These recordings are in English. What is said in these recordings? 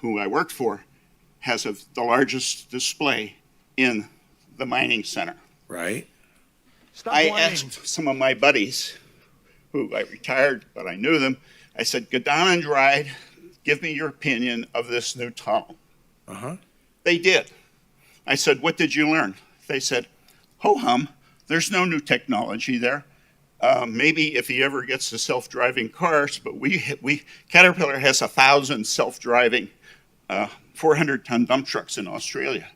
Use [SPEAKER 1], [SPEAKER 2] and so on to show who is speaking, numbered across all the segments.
[SPEAKER 1] who I worked for, has a, the largest display in the mining center.
[SPEAKER 2] right?
[SPEAKER 3] Stop
[SPEAKER 1] I
[SPEAKER 3] whining.
[SPEAKER 1] asked some of my buddies, who I retired, but I knew them. I said, "Go down and ride. Give me your opinion of this new tunnel."
[SPEAKER 2] Uh-huh.
[SPEAKER 1] They did. I said, What did you learn? They said, Ho hum, there's no new technology there. Uh, maybe if he ever gets to self driving cars, but we, we Caterpillar has a thousand self driving 400 ton dump trucks in Australia.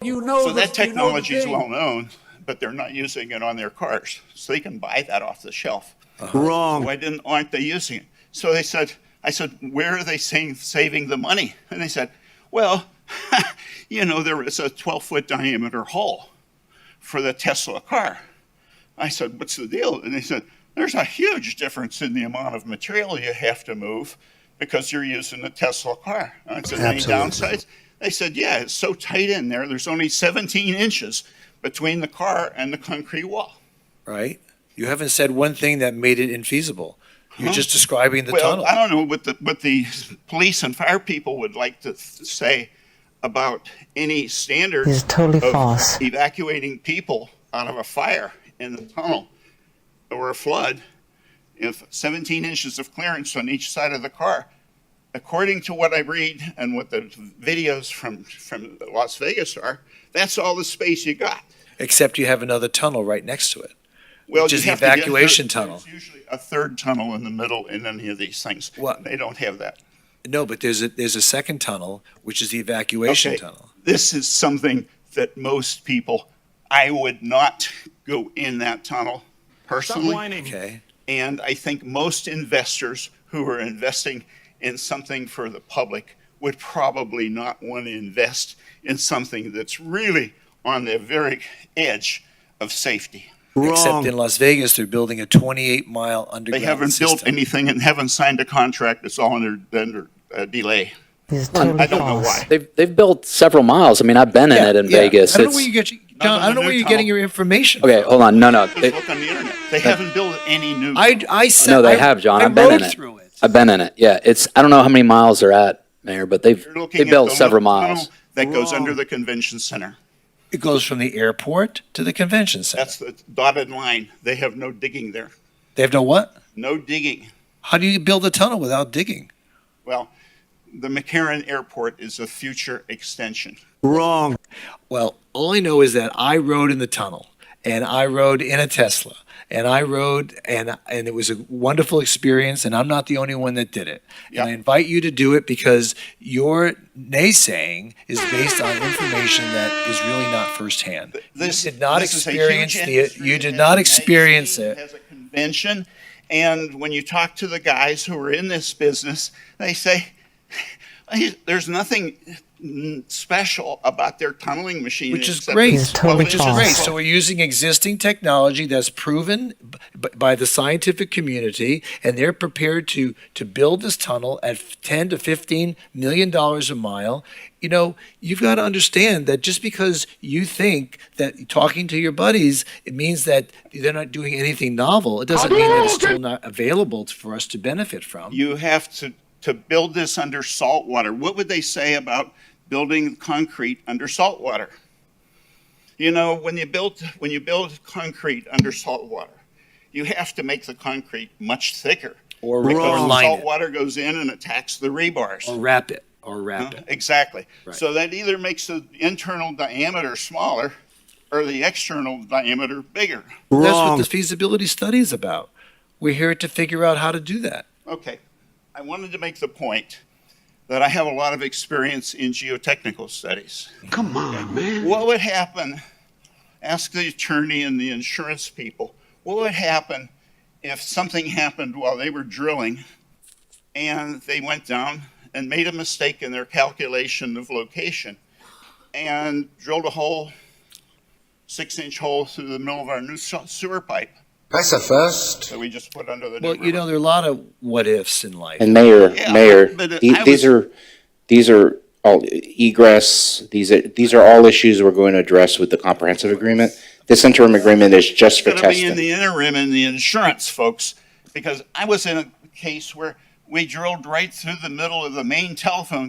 [SPEAKER 3] You know
[SPEAKER 1] So
[SPEAKER 3] the- you know
[SPEAKER 1] that
[SPEAKER 3] the
[SPEAKER 1] technology is
[SPEAKER 3] thing.
[SPEAKER 1] well known, but they're not using it on their cars. So they can buy that off the shelf.
[SPEAKER 4] Wrong.
[SPEAKER 1] Why didn't aren't they using it? So they said, I said, where are they saying, saving the money? And they said, well, you know, there is a 12 foot diameter hole for the Tesla car. I said, what's the deal? And they said, there's a huge difference in the amount of material you have to move because you're using a Tesla car. And I said, any
[SPEAKER 2] Absolutely.
[SPEAKER 1] downsides? They said, yeah, it's so tight in there. There's only 17 inches between the car and the concrete wall.
[SPEAKER 2] Right? You haven't said one thing that made it infeasible. You're just describing the
[SPEAKER 1] well,
[SPEAKER 2] tunnel.
[SPEAKER 1] I don't know what the what the police and fire people would like to th- say about any standard
[SPEAKER 5] This is totally
[SPEAKER 1] of
[SPEAKER 5] false.
[SPEAKER 1] evacuating people out of a fire in the tunnel or a flood. If 17 inches of clearance on each side of the car, according to what I read and what the videos from from Las Vegas are, that's all the space you got.
[SPEAKER 2] Except you have another tunnel right next to it.
[SPEAKER 1] Well,
[SPEAKER 2] Which
[SPEAKER 1] you
[SPEAKER 2] is the
[SPEAKER 1] have to get a
[SPEAKER 2] evacuation
[SPEAKER 1] third-
[SPEAKER 2] tunnel.
[SPEAKER 1] There's usually a third tunnel in the middle in any of these things.
[SPEAKER 2] What?
[SPEAKER 1] They don't have that.
[SPEAKER 2] No, but there's a there's a second tunnel, which is the evacuation
[SPEAKER 1] Okay,
[SPEAKER 2] tunnel.
[SPEAKER 1] This is something that most people, I would not go in that tunnel
[SPEAKER 3] Stop
[SPEAKER 1] personally.
[SPEAKER 3] whining.
[SPEAKER 2] Okay.
[SPEAKER 1] And I think most investors who are investing in something for the public would probably not want to invest in something that's really on the very edge of safety.
[SPEAKER 2] Except in
[SPEAKER 4] Wrong.
[SPEAKER 2] Las Vegas, they're building a 28 mile
[SPEAKER 1] They
[SPEAKER 2] underground.
[SPEAKER 1] haven't built
[SPEAKER 2] system.
[SPEAKER 1] anything and haven't signed a contract. It's all under, under uh, delay.
[SPEAKER 5] This is totally
[SPEAKER 1] I don't know
[SPEAKER 5] false.
[SPEAKER 1] why.
[SPEAKER 6] They've they've built several miles. I mean, I've been in
[SPEAKER 2] Yeah,
[SPEAKER 6] it in
[SPEAKER 2] yeah.
[SPEAKER 6] Vegas.
[SPEAKER 2] I don't know
[SPEAKER 6] It's-
[SPEAKER 2] where you get, your-
[SPEAKER 1] Not on
[SPEAKER 2] John, I
[SPEAKER 1] the
[SPEAKER 2] don't know
[SPEAKER 1] new
[SPEAKER 2] where you're
[SPEAKER 1] tunnel.
[SPEAKER 2] getting your information.
[SPEAKER 6] okay, hold on. No, no.
[SPEAKER 1] Just
[SPEAKER 6] It,
[SPEAKER 1] look on the internet. They haven't built any new.
[SPEAKER 2] I I said
[SPEAKER 6] Oh, no,
[SPEAKER 2] I,
[SPEAKER 6] they have, John.
[SPEAKER 2] I
[SPEAKER 6] I've been
[SPEAKER 2] rode
[SPEAKER 6] in it.
[SPEAKER 2] through it.
[SPEAKER 6] I've been in it. Yeah, it's I don't know how many miles they're at, Mayor, but they've
[SPEAKER 1] You're looking
[SPEAKER 6] they
[SPEAKER 1] at
[SPEAKER 6] built
[SPEAKER 1] the
[SPEAKER 6] several
[SPEAKER 1] little tunnel
[SPEAKER 6] miles.
[SPEAKER 1] That goes
[SPEAKER 4] Wrong.
[SPEAKER 1] under the convention center.
[SPEAKER 2] It goes from the airport to the convention center.
[SPEAKER 1] That's the dotted line. They have no digging there.
[SPEAKER 2] they have no what?
[SPEAKER 1] No digging.
[SPEAKER 2] How do you build a tunnel without digging?
[SPEAKER 1] Well, the McCarran Airport is a future extension.
[SPEAKER 4] Wrong.
[SPEAKER 2] Well, all I know is that I rode in the tunnel and I rode in a Tesla and I rode and and it was a wonderful experience and I'm not the only one that did it.
[SPEAKER 1] Yeah.
[SPEAKER 2] And I invite you to do it because your naysaying is based on information that is really not firsthand.
[SPEAKER 1] This
[SPEAKER 2] you did not
[SPEAKER 1] this is a huge
[SPEAKER 2] experience the,
[SPEAKER 1] industry
[SPEAKER 2] you
[SPEAKER 1] that
[SPEAKER 2] did
[SPEAKER 1] has
[SPEAKER 2] not
[SPEAKER 1] a
[SPEAKER 2] experience
[SPEAKER 1] magazine,
[SPEAKER 2] it.
[SPEAKER 1] Has a convention, and when you talk to the guys who are in this business, they say there's nothing mm, special about their tunneling machine.
[SPEAKER 2] Which is
[SPEAKER 1] except
[SPEAKER 2] great.
[SPEAKER 5] This is totally
[SPEAKER 2] which is great.
[SPEAKER 5] false.
[SPEAKER 2] So we're using existing technology that's proven b- b- by the scientific community, and they're prepared to to build this tunnel at f- ten to fifteen million dollars a mile. You know, you've got to understand that just because you think that talking to your buddies it means that they're not doing anything novel, it doesn't mean that it's still not available t- for us to benefit from.
[SPEAKER 1] you have to, to build this under salt water. What would they say about building concrete under salt water? You know, when you build, when you build concrete under salt water, you have to make the concrete much thicker.
[SPEAKER 2] Or-
[SPEAKER 1] because
[SPEAKER 2] or
[SPEAKER 1] the
[SPEAKER 2] line
[SPEAKER 1] salt
[SPEAKER 2] it.
[SPEAKER 1] water goes in and attacks the rebars.
[SPEAKER 2] Or wrap it. Or wrap
[SPEAKER 1] Huh?
[SPEAKER 2] it.
[SPEAKER 1] Exactly. So that either makes the internal diameter smaller or the external diameter bigger.
[SPEAKER 2] That's what
[SPEAKER 4] Wrong.
[SPEAKER 2] the feasibility study is about. We're here to figure out how to do that.
[SPEAKER 1] Okay. I wanted to make the point that I have a lot of experience in geotechnical studies.
[SPEAKER 7] Come on, man.
[SPEAKER 1] What would happen? Ask the attorney and the insurance people. What would happen if something happened while they were drilling and they went down and made a mistake in their calculation of location and drilled a hole, six inch hole through the middle of our new se- sewer pipe
[SPEAKER 8] That's a first.
[SPEAKER 1] that we just put under the new
[SPEAKER 2] Well, you
[SPEAKER 1] river?
[SPEAKER 2] know, there are a lot of what ifs in life.
[SPEAKER 6] And Mayor,
[SPEAKER 1] Yeah,
[SPEAKER 6] Mayor,
[SPEAKER 1] but, uh,
[SPEAKER 6] the-
[SPEAKER 1] I was-
[SPEAKER 6] these are these are all egress. These are these are all issues we're going to address with the comprehensive agreement. This interim agreement is just for
[SPEAKER 1] going to be in
[SPEAKER 6] testing.
[SPEAKER 1] the interim in the insurance, folks, because I was in a case where we drilled right through the middle of the main telephone